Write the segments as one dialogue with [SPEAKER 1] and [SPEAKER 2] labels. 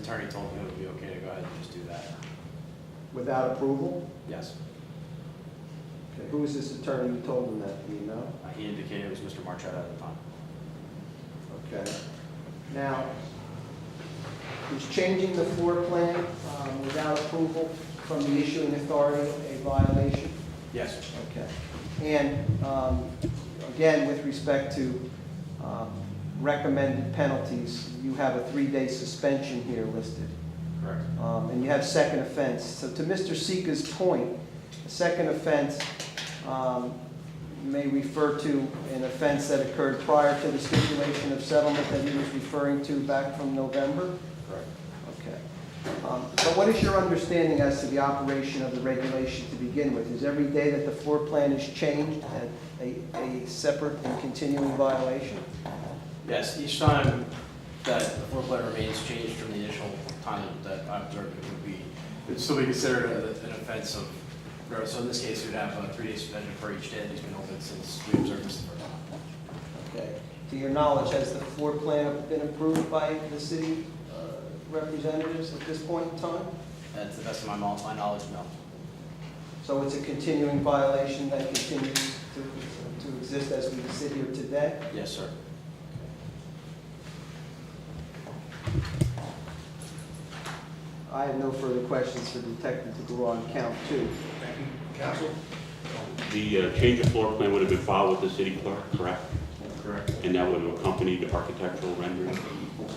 [SPEAKER 1] attorney told me it would be okay to go ahead and just do that.
[SPEAKER 2] without approval?
[SPEAKER 1] Yes,
[SPEAKER 2] Okay, Who was this attorney who told him that, do you know?
[SPEAKER 1] Uh, he indicated it was Mr. Marchetta at the time.
[SPEAKER 2] Okay. Now, he's changing the floor plan um, without approval from the issuing authority, a violation?
[SPEAKER 1] Yes,
[SPEAKER 2] Okay. And um, again, with respect to um, recommended penalties, you have a three-day suspension here listed,
[SPEAKER 1] correct.
[SPEAKER 2] Um, and you have second offense. So to Mr. Sika's point, a second offense um, may refer to an offense that occurred prior to the stipulation of settlement that he was referring to back from November?
[SPEAKER 1] Correct.
[SPEAKER 2] Okay. Um, But what is your understanding as to the operation of the regulation to begin with? Is every day that the floor plan is changed a- a, a separate and continuing violation?
[SPEAKER 1] Yes, each time that the floor plan remains changed from the initial time that I observed, it would be, it'd still be considered a- an offense of, or so in this case, we'd have uh, a three-day suspension for each day that he's been open since we observed this the first time.
[SPEAKER 2] Okay. To your knowledge, has the floor plan been approved by the city uh, representatives at this point in time?
[SPEAKER 1] And to the best of my mo- my knowledge, no.
[SPEAKER 2] So it's a continuing violation that continues to, to exist as we sit here today?
[SPEAKER 1] Yes, sir.
[SPEAKER 2] I have no further questions for Detective DeGraw on count two.
[SPEAKER 3] Thank you, counsel.
[SPEAKER 4] The uh, change of floor plan would have been filed with the city clerk, correct?
[SPEAKER 1] Correct.
[SPEAKER 4] And that would have accompanied the architectural rendering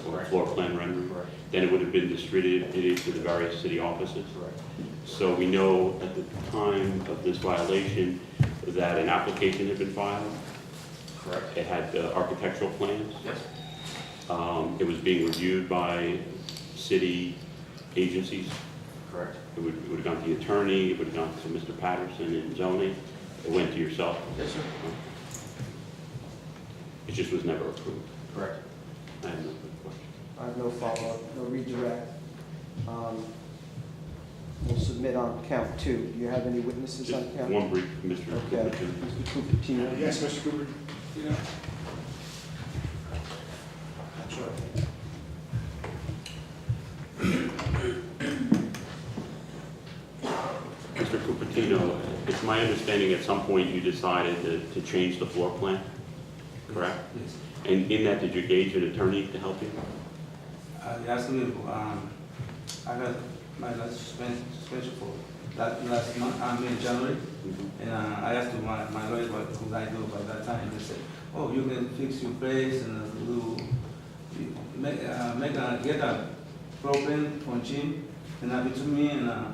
[SPEAKER 4] or floor plan rendering.
[SPEAKER 1] Correct.
[SPEAKER 4] Then it would have been distributed to the various city offices.
[SPEAKER 1] Correct.
[SPEAKER 4] So we know at the time of this violation that an application had been filed.
[SPEAKER 1] Correct.
[SPEAKER 4] It had the architectural plans.
[SPEAKER 1] Yes.
[SPEAKER 4] Um, It was being reviewed by city agencies.
[SPEAKER 1] Correct.
[SPEAKER 4] It would it would have gone to the attorney, it would have gone to Mr. Patterson in zoning. It went to yourself.
[SPEAKER 1] Yes, sir.
[SPEAKER 4] It just was never approved.
[SPEAKER 1] Correct.
[SPEAKER 4] I have no further questions.
[SPEAKER 2] I have no follow-up, no redirect. Um, We'll submit on count two. Do you have any witnesses on
[SPEAKER 4] Just
[SPEAKER 2] count?
[SPEAKER 4] one brief, Mr.
[SPEAKER 2] Okay,
[SPEAKER 4] Cooper.
[SPEAKER 2] Mr. Cupertino?
[SPEAKER 3] Yes, Mr. Cooper? You know? Sure.
[SPEAKER 4] Mr. Cupertino, it's my understanding at some point you decided to- to change the floor plan, correct?
[SPEAKER 5] Yes.
[SPEAKER 4] And in that, did you engage an attorney to help you?
[SPEAKER 5] Uh, they asked me, um, I got my last suspension, suspension for that last month, I mean, January. And uh, I asked my, my lawyer what could I do by that time. They said, oh, you can fix your place and uh, do, you make, uh, make a, get a problem from Jim and have it to me and uh,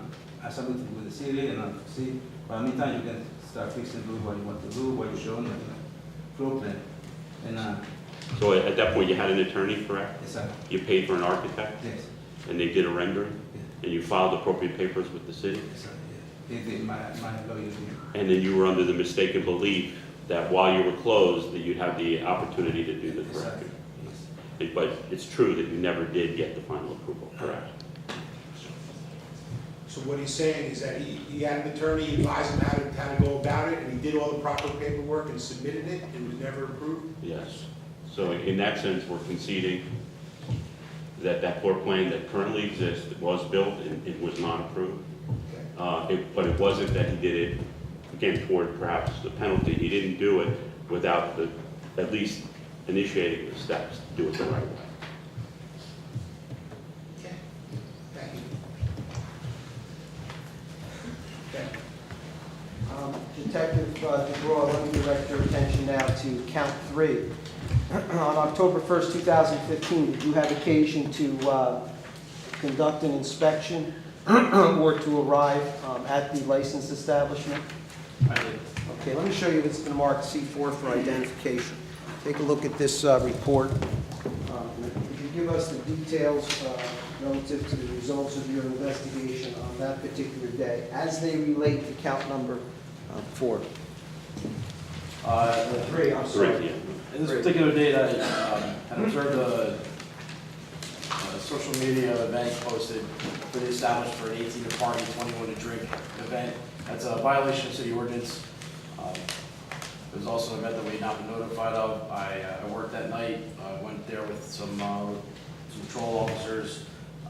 [SPEAKER 5] I submit it with the city and uh, see, by meantime, you can start fixing, do what you want to do, what you show, and uh, problem. And, uh,
[SPEAKER 4] So at that point, you had an attorney, correct?
[SPEAKER 5] it's a,
[SPEAKER 4] You paid for an architect,
[SPEAKER 5] yes,
[SPEAKER 4] and they did a rendering,
[SPEAKER 5] yes.
[SPEAKER 4] and you filed appropriate papers with the city?
[SPEAKER 5] Yes, I did. They did, my, my lawyer did.
[SPEAKER 4] And then you were under the mistaken belief that while you were closed, that you'd have the opportunity to do the
[SPEAKER 5] Yes, I-
[SPEAKER 4] correcting.
[SPEAKER 5] yes.
[SPEAKER 4] But it's true that you never did get the final approval, correct?
[SPEAKER 3] So what he's saying is that he, he had an attorney he advised him how to, how to go about it, and he did all the proper paperwork and submitted it, and it was never approved?
[SPEAKER 4] Yes. So in that sense, we're conceding that that floor plan that currently exists was built and it was not approved.
[SPEAKER 3] Okay.
[SPEAKER 4] Uh, it- But it wasn't that he did it, again, toward perhaps the penalty. He didn't do it without the, at least initiating the steps to do it the right way.
[SPEAKER 3] Okay. Thank you. Okay.
[SPEAKER 2] Um, Detective uh, DeGraw, let me direct your attention now to count three. On October 1st, 2015, did you have occasion to uh, conduct an inspection or to arrive um, at the licensed establishment?
[SPEAKER 1] I did.
[SPEAKER 2] Okay, let me show you, it's been marked C4 for identification. Take a look at this uh, report. Um, Could you give us the details uh, relative to the results of your investigation on that particular day as they relate to count number uh, four?
[SPEAKER 1] Uh, the three, I'm sorry.
[SPEAKER 4] Correct, yeah.
[SPEAKER 1] In this particular date, I um, had observed a, a social media event posted for the established for an 18 to party, 21 to drink event. That's a violation of city ordinance. Um, It was also an event that we had not been notified of. I, uh, I worked that night, I went there with some, uh, some uh, patrol officers,